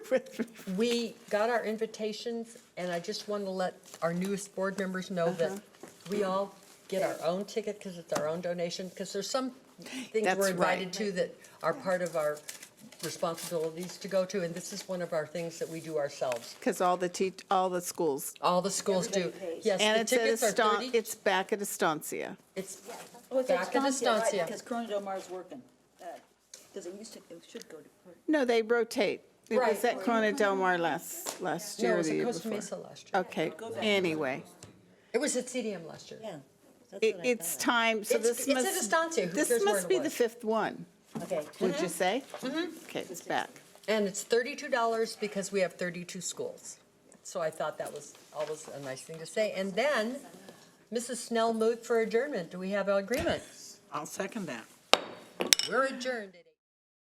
We got our invitations, and I just want to let our newest board members know that Uh-huh. we all get our own ticket because it's our own donation, because there's some things That's we're right. invited to that are part of our responsibilities to go to, and this is one of our things that we do ourselves. Because all the teach, all the schools. All the schools do. Everybody pays. Yes, And the it's at tickets are Eston, 30. it's back at Estancia. It's Oh, it's back in Estancia, right, Estancia. Because Corona Del Mar's working. Because it used to, it should go to. No, they rotate. It was Right. at Corona Del Mar last, last No, year it or was the at year Costa before. Mesa last year. Okay, anyway, It was at CDM last year. Yeah. that's it, what I it's thought. time, so It's- this it's at must. Estancia. Who cares This where must it be the was? Mm-hmm. fifth one, Okay. would you say? Okay, it's back. And it's thirty-two dollars because we have thirty-two schools. So I thought that was always a nice thing to say. And then Mrs. Snell moved for adjournment. Do we have an agreement? I'll second that. We're adjourned.